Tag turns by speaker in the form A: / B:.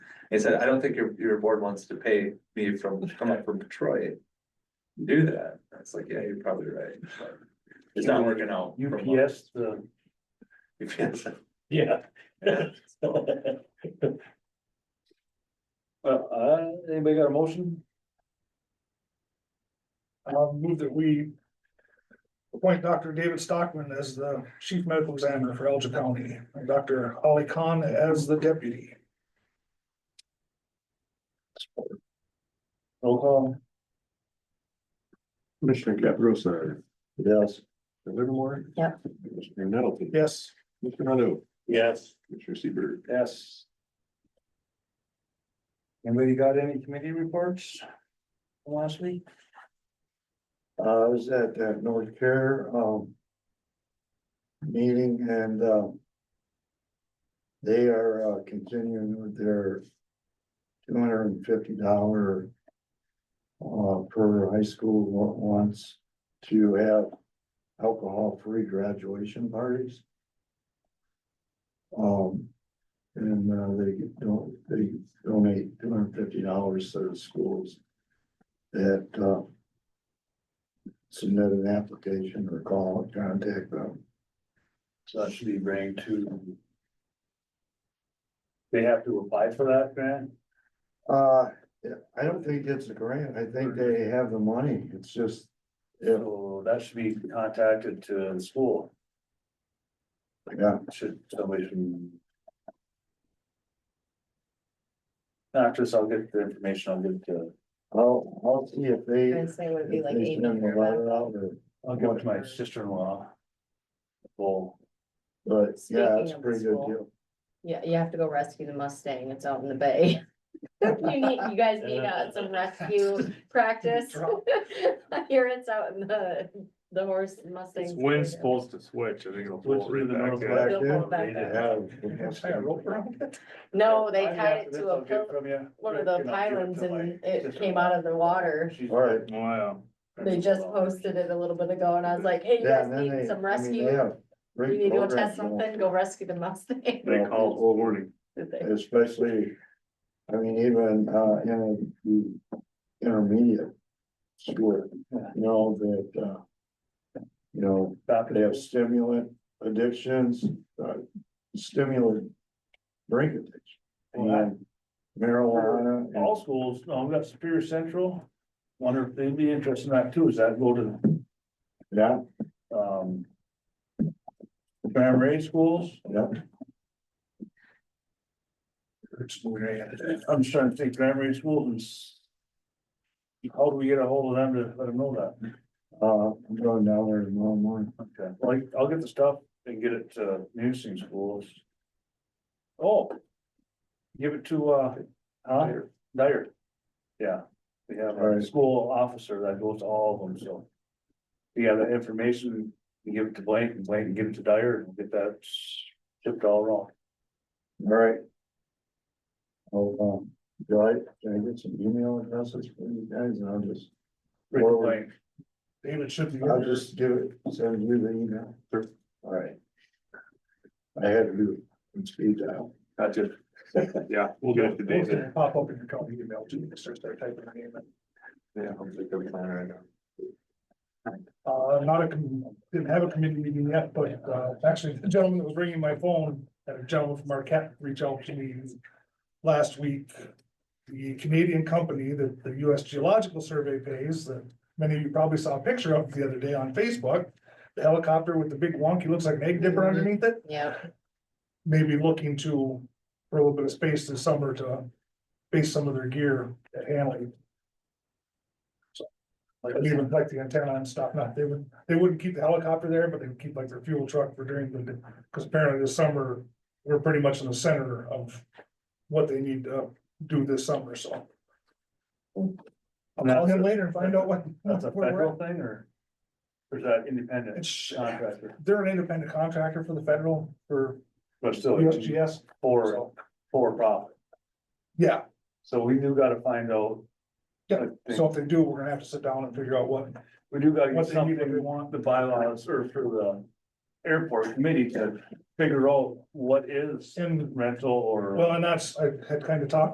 A: He said, I don't think your, your board wants to pay me from, come up from Detroit. to Do that. I was like, yeah, you're probably right. but It's not working out. for a month.
B: UPS, the,
A: UPS.
B: yeah. Well, uh, anybody got a motion?
C: I'll move that we appoint Dr. David Stockman as the chief medical examiner for Elgin County, and Dr. Holly Khan as the deputy.
B: Roll call.
D: Commissioner Caprosa,
B: Yes.
D: Mr. Livermore.
E: Yeah.
D: Commissioner Nettleton.
C: Yes,
D: Mr. Rondo,
B: Yes.
D: Commissioner Seaver.
B: Yes. Anybody got any committee reports? from Last week? Uh, I was at that North Care, um. Meeting and, um. They are uh, continuing with their. Two hundred and fifty dollar. Uh, per high school wa- wants to have alcohol-free graduation parties. Um, and uh, they don't, they donate two hundred and fifty dollars to the schools that uh. Submit an application or call and contact them. So that should be bring to.
F: They have to apply for that grant?
B: Uh, yeah, I don't think it's a grant. I think they have the money. It's just. If,
F: So that should be contacted to the school,
B: yeah,
F: should somebody from. After this, I'll get the information, I'll give to,
B: I'll, I'll see if they.
E: I'd say it would be
B: if
E: like
B: they
E: eight
B: send the
E: hundred
B: letter
E: bucks.
B: out or-
F: I'll give it to my sister-in-law. Well,
B: But yeah,
E: Speaking
B: it's a
E: of the
B: pretty good
E: school.
B: deal.
E: Yeah, you have to go rescue the Mustang. It's out in the bay. You need, you guys need uh, some rescue practice. I hear it's out in the, the horse Mustang.
G: Wind's supposed to switch, I think it'll
F: Switch
G: fall
F: to
G: right
F: the
G: back
F: north
G: in.
B: back
E: They'll
B: in.
E: pull it back
F: They
E: up.
F: did.
B: Have-
C: Can I tie a rope around it?
E: No, they
B: Oh,
F: I-
E: tied it
F: this
E: to
F: I'll
E: a,
F: get
E: pil-
F: from
C: uh,
F: you.
E: one of the
F: And I'll give it
E: pylons
F: to my
E: and it came
F: sister-in-law.
E: out of the water.
F: She's-
B: All right.
G: Wow,
E: They just posted it a little bit ago and I was like, hey, you
B: Yeah,
E: guys
B: and then
E: need
B: they,
E: some
B: I mean, they
E: rescue.
B: have.
E: You
B: great
E: need to go test
B: programs going.
E: something, go rescue the Mustang.
G: they called this morning,
E: Did they?
B: Especially, I mean, even, uh, in the intermediate school, you know, that, uh. You know,
F: Back
B: they
F: in
B: have stimulant addictions, uh, stimulant drink addiction. And marijuana, and-
F: All schools, no, we've got Superior Central, wonder if they'd be interested in that too, is that go to
B: yeah,
F: um. Primary schools,
B: yeah,
F: I'm just trying to think primary schools and. s- How do we get a hold of them to let them know that?
B: uh, I'm going down there tomorrow morning.
F: Okay, like, I'll get the stuff and get it to nursing schools. Oh. Give it to, uh, huh? Dyer. Yeah, we have
B: All
F: a
B: right.
F: school officer that goes to all of them, so. We have that information, you give it to Blake and Blake can give it to Dyer and we'll get that shipped all wrong.
B: All right. I'll, um, do I, can I get some email addresses for you guys and I'll just,
F: Rick
B: Or-
F: Blake.
C: David should be.
B: I'll just give it, send you the email. All right. I had to do it in speed dial.
G: gotcha, yeah, we'll get it to
C: Those
G: David.
C: that Pop up in your company email too, you start start typing your name in.
A: Yeah, I'm like, I'm fine right now.
C: Uh, not a, com- didn't have a committee meeting yet, but, uh, actually, the gentleman that was ringing my phone, had a gentleman from Marquette reach out to me last week. The Canadian company that the US Geological Survey pays, that many of you probably saw a picture of the other day on Facebook. The helicopter with the big wonky, looks like an egg dipper underneath it,
E: Yeah,
C: maybe looking to, for a little bit of space this summer to base some of their gear at Hanley. Like leaving like the antenna and stuff, not, they would, they wouldn't keep the helicopter there, but they would keep like their fuel truck for during the, because apparently this summer, we're pretty much in the center of what they need to do this summer, so. I'll call him later and find out what.
F: That's a
C: where we're
F: federal
C: at.
F: thing or? Or is that independent
C: It's,
F: contractor?
C: they're an independent contractor for the federal, for
F: But still, it's
C: USGS,
F: for,
C: so,
F: for profit.
C: yeah,
F: So we do gotta find out.
C: Yeah,
F: I
C: so
F: think
C: if they do, we're gonna have to sit down and figure out what,
F: We do gotta
C: what
F: get
C: they need, what they
F: something,
C: want.
F: the bylaws or for the airport committee to figure out what is
C: And,
F: rental or.
C: well, and that's, I had kind of talked